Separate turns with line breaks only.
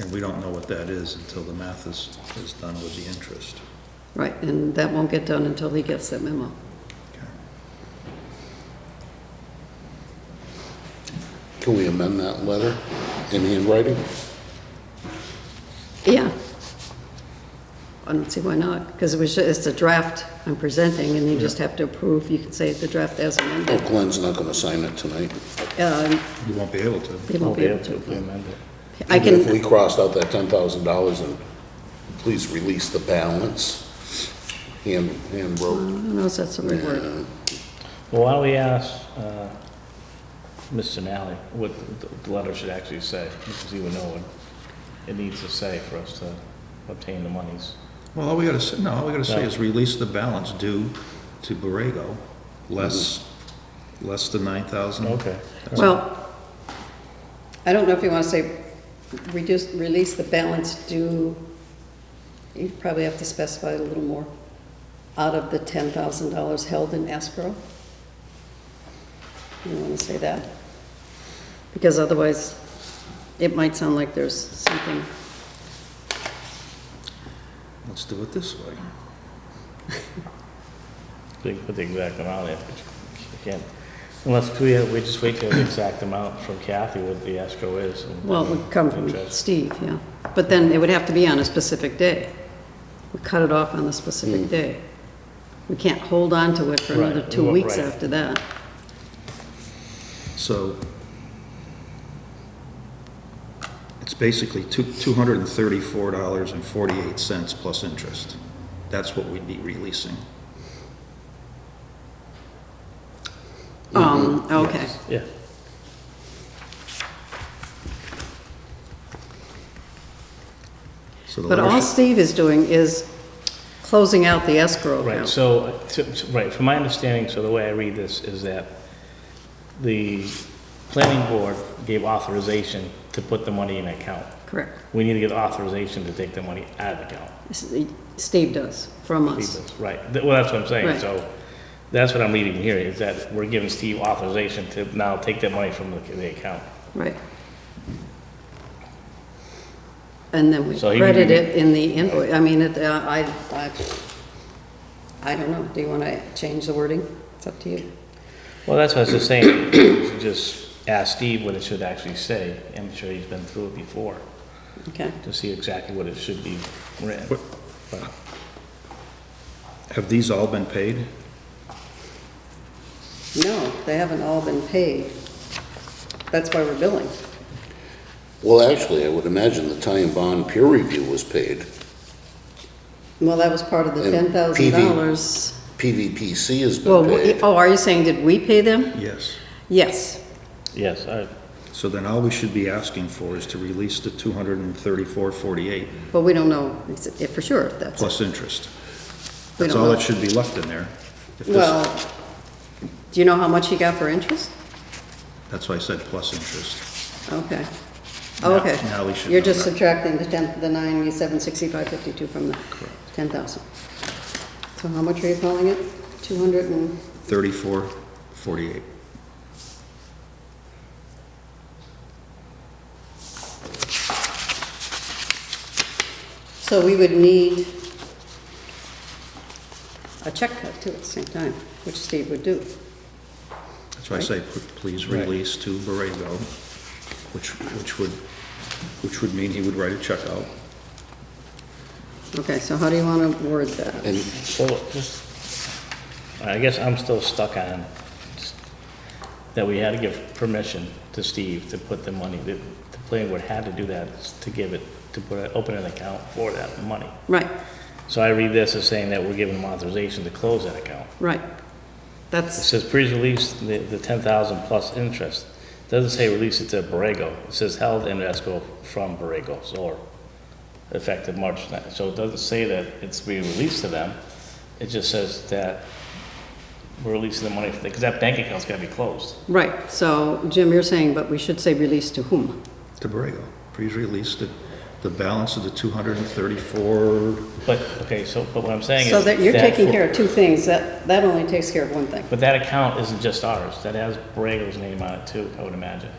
And we don't know what that is until the math is, is done with the interest.
Right, and that won't get done until he gets that memo.
Can we amend that letter in handwriting?
Yeah. I don't see why not, because it was, ju- it's a draft I'm presenting, and you just have to approve, you can say the draft as
Oh,
amended.
Glenn's not gonna sign it tonight.
Um,
You won't be able to.
He won't be able to.
amend it.
I
Even If we
can,
crossed out that ten thousand dollars and please release the balance, hand, hand
I
wrote.
don't know if that's the right word.
Well, why don't we ask uh, Mr. Nally what the- the letter should actually say, because he would know what it needs to say for us to obtain the monies.
Well, all we gotta say, no, all we gotta say
No.
is release the balance due to Borrego, less, less than nine thousand.
Okay.
Well, I don't know if you want to say, reduce, release the balance due, you probably have to specify it a little more, out of the ten thousand dollars held in escrow. You want to say that? Because otherwise, it might sound like there's something,
Let's do it this way.
We can put the exact amount in, but you can't, unless we, we just wait till the exact amount from Kathy what the escrow is. and-
well, it would come from
Interest.
Steve, yeah. But then it would have to be on a specific day. We cut it off on the specific day. We can't hold on to it for another
Hmm. Right,
two weeks
right.
after that.
So it's basically two, two hundred and thirty-four dollars and forty-eight cents plus interest. That's what we'd be releasing.
Um,
Mm-hmm.
okay,
Yeah.
So the
but
letter
all
should-
Steve is doing is closing out the escrow
Right,
account.
so, uh, to- to- right, from my understanding, so the way I read this is that the planning board gave authorization to put the money in account.
Correct.
We need to get authorization to take the money out of the account.
S- Steve does, from us.
Steve, Right, Th- well, that's what I'm saying,
Right.
so, that's what I'm reading here, is that we're giving Steve authorization to now take that money from the, the account.
Right. And then we
So he-
credit it in the invoice. I mean, it, uh, I, I, I don't know. Do you want to change the wording? It's up to you.
Well, that's what I was just saying, you should just ask Steve what it should actually say, I'm sure he's been through it before,
Okay.
to see exactly what it should be written.
What-
But-
Have these all been paid?
No, they haven't all been paid. That's why we're billing.
Well, actually, I would imagine the tie and bond peer review was paid.
Well, that was part of the ten
And
thousand
PV.
dollars.
PVPC has
Well,
been
we-
paid.
oh, are you saying, did we pay them?
Yes.
Yes,
Yes, I,
So then all we should be asking for is to release the two hundred and thirty-four forty-eight
but we don't know ex- if for sure if that's,
plus interest.
We
That's
don't
all
know.
that should be left in there. If this-
well, do you know how much he got for interest?
That's why I said plus interest.
Okay.
Now-
Okay.
now we should
You're
know
just
that.
subtracting the ten, the ninety-seven, sixty-five, fifty-two from the ten thousand. So how much are you calling it? Two hundred and,
Thirty-four forty-eight.
so we would need a check cut too at the same time, which Steve would do.
That's why I say, p- please release to Borrego, which, which would, which would mean he would write a check out.
Okay, so how do you want to word that?
And
so just, I guess I'm still stuck on that we had to give permission to Steve to put the money, that the planning board had to do that to give it, to put, it- open an account for that money.
Right,
So I read this as saying that we're giving them authorization to close that account.
right.
It
That's,
says, please release the, the ten thousand plus interest. Doesn't say release it to Borrego. It says held in escrow from Borrego Solar, effective March ninth. So it doesn't say that it's being released to them. It just says that we're releasing the money, because that bank account's gotta be closed.
right, so Jim, you're saying, but we should say release to whom?
To Borrego, please release the, the balance of the two hundred and thirty-four,
But, okay, so, but what I'm saying is.
So that you're taking
for-
care of two things, that, that only takes care of one thing.
But that account isn't just ours. That has Borrego's name on it too, I would imagine.